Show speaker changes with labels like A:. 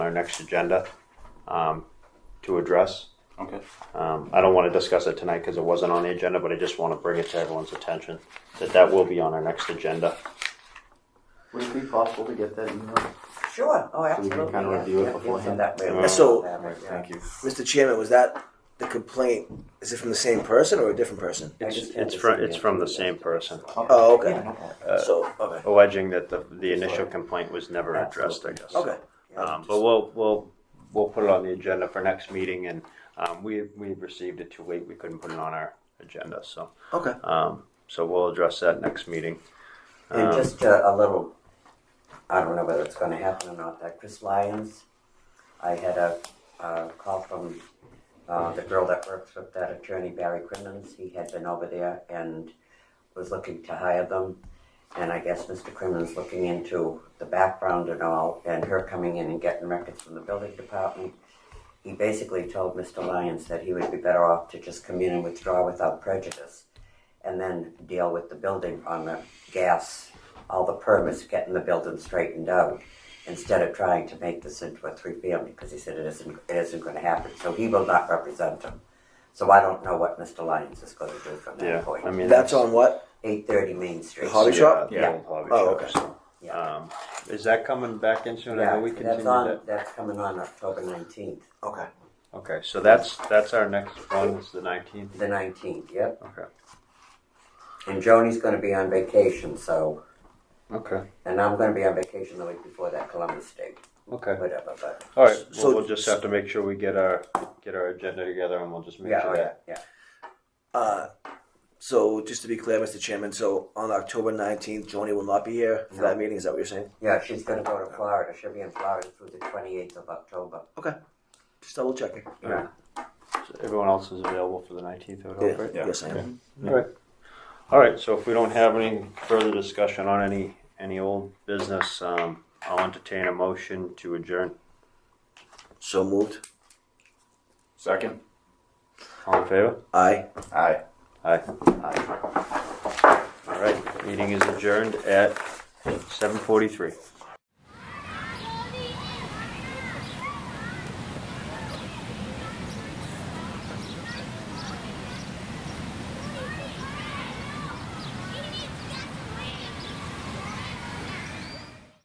A: our next agenda um, to address.
B: Okay.
A: Um, I don't want to discuss it tonight because it wasn't on the agenda, but I just want to bring it to everyone's attention that that will be on our next agenda.
B: Would it be possible to get that email?
C: Sure, oh,
B: So we
C: absolutely.
B: can kind of
C: yeah,
B: review
C: yeah,
B: it
C: yeah,
B: beforehand?
C: that way
A: Yeah.
C: we
B: uh,
D: So-
C: have it, yeah.
B: Thank you.
D: Mr. Chairman, was that the complaint? Is it from the same person or a different person?
B: I
A: It's,
B: just had
A: it's
B: this
A: from
B: email.
A: it's from the same person
D: Oh, okay.
B: Yeah, no problem.
D: so okay,
A: alleging that the the initial complaint was never addressed. I guess.
D: okay.
A: Um, but we'll we'll we'll put it on the agenda for next meeting, and um, we we received it too late. We couldn't put it on our agenda, so
D: Okay.
A: um, so we'll address that next meeting.
C: And
A: Um,
C: just uh, a, a little, I don't know whether it's gonna happen or not, that Chris Lyons, I had a, a call from, uh, the girl that works with that attorney, Barry Crimmins, he had been over there and was looking to hire them. And I guess Mr. Crimmins looking into the background and all, and her coming in and getting records from the building department. He basically told Mr. Lyons that he would be better off to just come in and withdraw without prejudice and then deal with the building on the gas, all the permits, getting the building straightened out, instead of trying to make this into a three-family, because he said it isn't, it isn't gonna happen, so he will not represent him. So I don't know what Mr. Lyons is gonna do from
A: Um, yeah,
C: that point.
A: I mean
D: That's on what?
C: Eight thirty Main Street.
D: The hobby
A: yeah,
D: shop?
A: the
B: Yeah.
A: old hobby
D: Oh,
A: shop,
D: okay.
A: so,
C: Yeah.
A: um, is that coming back in soon? I
C: Yeah,
A: know we
C: that's
A: continued
C: on,
A: it.
C: that's coming on October nineteenth,
D: Okay.
A: Okay, so that's that's our next one. It's the nineteenth.
C: the nineteenth, yep.
A: Okay.
C: And Joni's gonna be on vacation, so,
A: Okay.
C: and I'm gonna be on vacation the week before that Columbus Day,
A: Okay.
C: whatever, but,
A: All right. Well,
D: So-
A: we'll just have to make sure we get our get our agenda together, and we'll just make
C: yeah,
A: sure
C: oh, yeah,
A: that.
C: yeah.
D: Uh, so just to be clear, Mr. Chairman, so on October nineteenth, Joni will not be here for that meeting. Is that what you're saying?
C: Yeah, she's gonna go to Florida. She'll be in Florida through the twenty-eighth of October.
D: Okay. Just double checking.
C: Yeah.
A: So everyone else is available for the nineteenth. I would hope, right?
B: Yeah.
D: Yes, I am.
A: All right. All right. So if we don't have any further discussion on any any old business, um, I'll entertain a motion to adjourn.
D: So moved.
B: Second.
A: All in favor?
D: Aye.
B: Aye.
A: Aye.
B: Aye.
A: All right. Meeting is adjourned at seven forty-three.